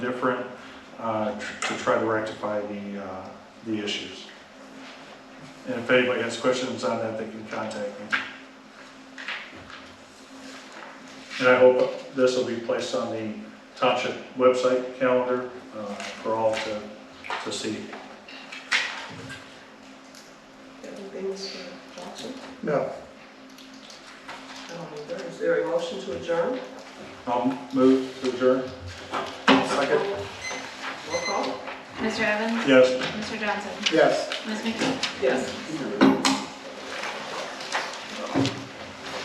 different uh, tr- to try to rectify the, uh, the issues. And if anybody has questions on that, they can contact me. And I hope this will be placed on the township website calendar uh, for all to, to see. Anything, Mr. Johnson? No. Um, Is there a motion to adjourn? I'll move to adjourn. Second. Roll call? Mr. Evans? Yes. Mr. Johnson? Yes. Ms. McKee? Yes.